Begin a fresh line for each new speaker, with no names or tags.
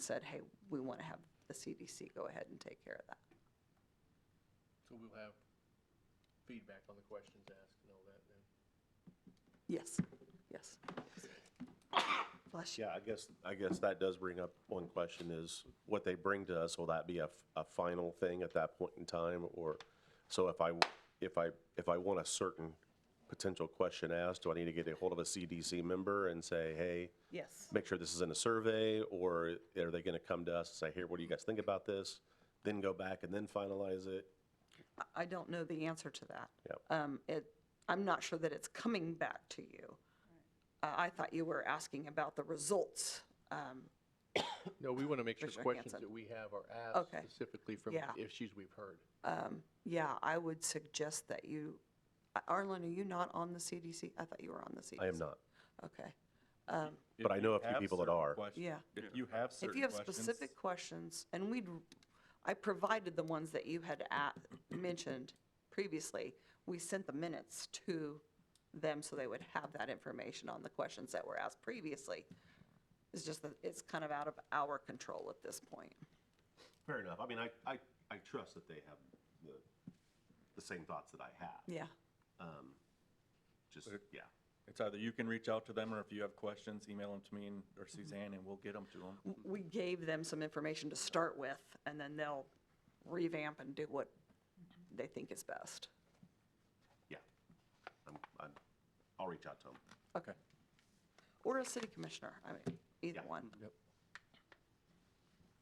said, hey, we want to have the CDC go ahead and take care of that.
So we'll have feedback on the questions asked and all that then.
Yes, yes. Bless you.
Yeah, I guess, I guess that does bring up one question is what they bring to us, will that be a, f- a final thing at that point in time? Or, so if I, if I, if I want a certain potential question asked, do I need to get a hold of a CDC member and say, hey,
Yes.
make sure this is in a survey? Or are they going to come to us and say, here, what do you guys think about this? Then go back and then finalize it?
I- I don't know the answer to that.
Yep.
Um, it, I'm not sure that it's coming back to you. I, I thought you were asking about the results. Um,
No, we want to make sure
Commissioner
questions
Hanson.
that we have are asked
Okay.
specifically from
Yeah.
issues we've heard.
um, yeah, I would suggest that you, A- Arlen, are you not on the CDC? I thought you were on the CDC.
I am not.
Okay. Um,
If
But I
you
know a few
have
people that
certain
are.
quest-
Yeah.
If you have
If
certain
you have
questions-
specific questions, and we'd, I provided the ones that you had at, mentioned previously, we sent the minutes to them so they would have that information on the questions that were asked previously. It's just that it's kind of out of our control at this point.
Fair enough. I mean, I, I, I trust that they have the, the same thoughts that I have. Um,
Yeah,
Just, yeah.
It's either you can reach out to them, or if you have questions, email them to me and- or Suzanne, and we'll get them to them.
we gave them some information to start with, and then they'll revamp and do what they think is best.
Yeah. I'm, I'm, I'll reach out to him.
Okay.
Or a city commissioner, I mean, either
Yeah.
one.
Yep.